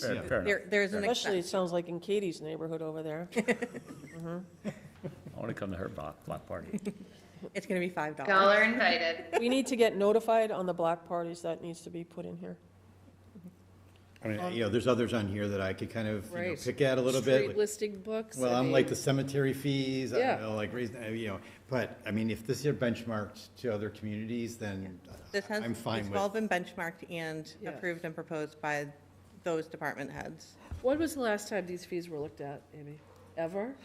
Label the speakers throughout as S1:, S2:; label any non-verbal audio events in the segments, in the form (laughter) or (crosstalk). S1: Fair- fair enough.
S2: There, there's an
S3: Especially, it
S2: expense.
S3: sounds like in Katie's neighborhood over there. (laughs)
S1: I want to come to her block, block party.
S2: It's gonna be five dollars.
S4: Y'all are invited.
S3: We need to get notified on the block parties, that needs to be put in here.
S5: I mean, you know, there's others on here that I could kind of, you know,
S6: Right.
S5: pick at a little bit.
S6: Street listing books.
S5: Well,
S6: I
S5: I'm like
S6: mean,
S5: the cemetery fees, I
S6: Yeah.
S5: don't know, like, reason- uh, you know, but, I mean, if this is benchmarked to other communities, then
S2: This has,
S5: I'm
S2: it's
S5: fine
S2: all been
S5: with.
S2: benchmarked and
S6: Yeah.
S2: approved and proposed by those department heads.
S6: When was the last time these fees were looked at, Amy? Ever?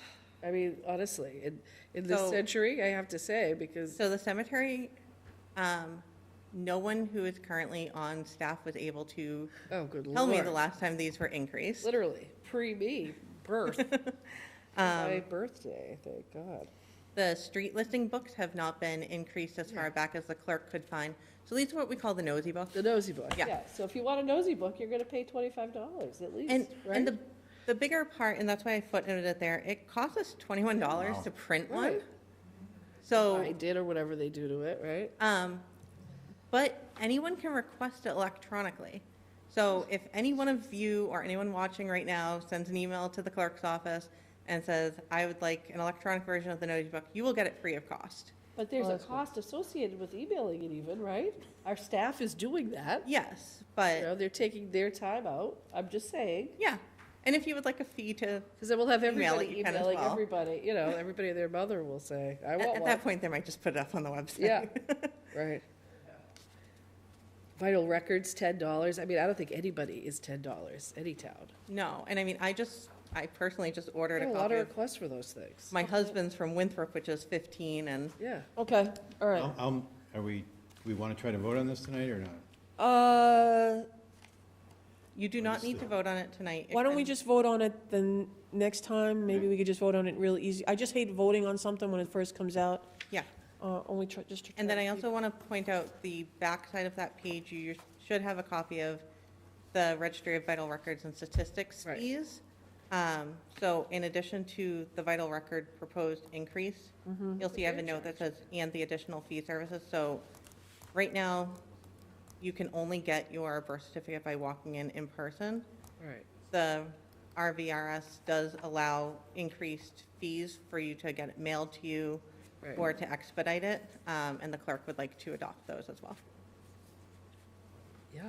S6: I mean, honestly, in, in this
S2: So-
S6: century, I have to say, because,
S2: So the cemetery, um, no one who is currently on staff was able to
S6: oh, good lord.
S2: tell me the last time these were increased.
S6: Literally, pre-me, (laughs) birth. My birthday, thank God.
S2: Um, The street listing books have not been increased as far back as the clerk could find. So these are what we call the nosy books.
S6: The nosy book,
S2: Yeah.
S6: yeah. So if you want a nosy book, you're gonna pay twenty-five dollars at
S2: And,
S6: least,
S2: and
S6: right?
S2: the, the bigger part, and that's why I footnoted it there, it costs us twenty-one dollars to print one.
S6: Right. I
S2: So,
S6: did, or whatever they do to it, right?
S2: um, but anyone can request it electronically. So if any one of you or anyone watching right now sends an email to the clerk's office and says, I would like an electronic version of the notice book, you will get it free of cost.
S6: But there's a cost associated with emailing it even, right? Our staff is doing that.
S2: Yes,
S6: You
S2: but,
S6: know, they're taking their time out. I'm just saying.
S2: yeah. And if you would like a fee to,
S6: Because then we'll have
S2: Email it,
S6: everybody
S2: you can as
S6: emailing
S2: well.
S6: everybody, you know, everybody and their mother will say, I
S2: at
S6: want
S2: at that
S6: one.
S2: point, they might just put it up on the website.
S6: Yeah. Right. Vital records, ten dollars. I mean, I don't think anybody is ten dollars, any town.
S2: (laughs) No, and I mean, I just, I personally just
S6: I
S2: ordered
S6: have
S2: a
S6: a lot
S2: copy
S6: of
S2: of
S6: requests for those things.
S2: My husband's from Winthrop, which is 15, and
S6: Yeah.
S3: Okay, all right.
S5: I'll- I'll- Are we, we want to try to vote on this tonight or not?
S3: Uh,
S2: you do not need to vote on it tonight.
S3: why don't we
S2: And
S3: just vote on it the n- next time? Maybe we could just vote on it real easy. I just hate voting on something when it first comes out,
S2: Yeah,
S3: uh, only try, just to.
S2: and then
S3: try
S2: I
S3: to
S2: also want to point out the backside of that page, you should have a copy of the Registry of Vital Records and Statistics
S6: Right.
S2: fees. Um, So in addition to the vital record proposed increase, you'll see I have a note that says, and the additional fee services. So right now, you can only get your birth certificate by walking in in person.
S6: Right.
S2: the RVRS does allow increased fees for you to get it mailed to you
S6: Right.
S2: or to expedite it, um, and the clerk would like to adopt those as well.
S6: Yeah.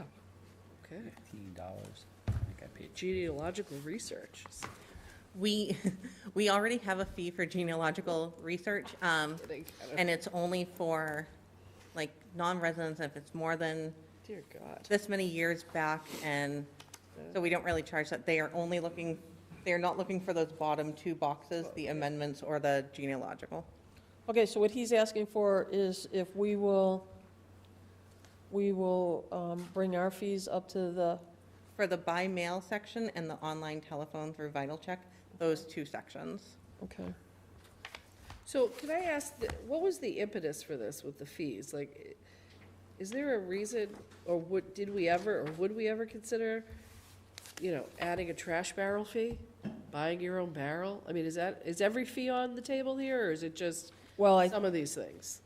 S6: Okay.
S1: Fifteen dollars. I think I paid
S6: Genealogical research.
S2: We, (laughs) we already have a fee for genealogical research, um,
S6: Kidding. I don't-
S2: and it's only for, like, non-residents if it's more than
S6: Dear God.
S2: this many years back, and so we don't really charge that. They are only looking, they are not looking for those bottom two boxes, the amendments or the genealogical.
S3: Okay, so what he's asking for is if we will, we will um, bring our fees up to the,
S2: For the by mail section and the online telephone through Vital Check, those two sections.
S3: okay.
S6: So can I ask, th- what was the impetus for this with the fees? Like, i- is there a reason, or would, did we ever, or would we ever consider, you know, adding a trash barrel fee? Buying your own barrel? I mean, is that, is every fee on the table here, or is it just
S3: Well, I,
S6: some of these things?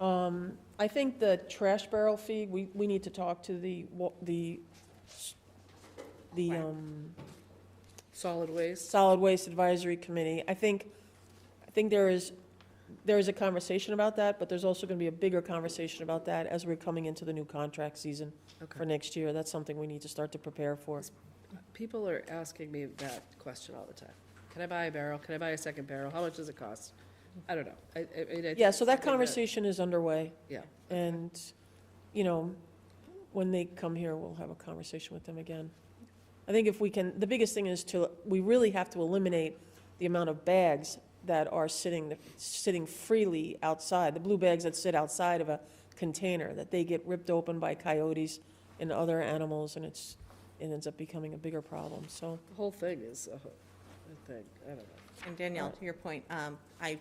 S3: um, I think the trash barrel fee, we, we need to talk to the, wa- the, the, um,
S6: Solid waste?
S3: Solid Waste Advisory Committee. I think, I think there is, there is a conversation about that, but there's also going to be a bigger conversation about that as we're coming into the new contract season for
S6: Okay.
S3: next year. That's something we need to start to prepare for.
S6: People are asking me that question all the time. Can I buy a barrel? Can I buy a second barrel? How much does it cost? I don't know. I, I I mean, I think
S3: Yeah, so that
S6: it's something
S3: conversation is underway,
S6: Yeah.
S3: and, you know, when they come here, we'll have a conversation with them again. I think if we can, the biggest thing is to, we really have to eliminate the amount of bags that are sitting, sitting freely outside, the blue bags that sit outside of a container, that they get ripped open by coyotes and other animals, and it's, it ends up becoming a bigger problem, so.
S6: The whole thing is a ho- a thing. I don't know.
S2: And Danielle, to your point, um, I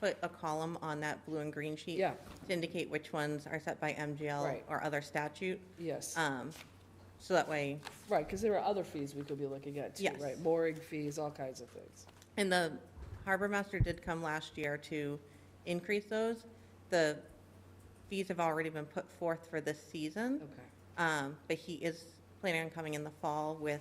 S2: put a column on that blue and green sheet
S6: Yeah.
S2: to indicate which ones are set by MGL
S6: Right.
S2: or other statute.
S6: Yes,
S2: Um, So that way,
S6: right, because there are other fees we could be looking at too,
S2: Yes.
S6: right? Mooring fees, all kinds of things.
S2: and the harbor master did come last year to increase those. The fees have already been put forth for this season.
S6: Okay.
S2: Um, but he is planning on coming in the fall with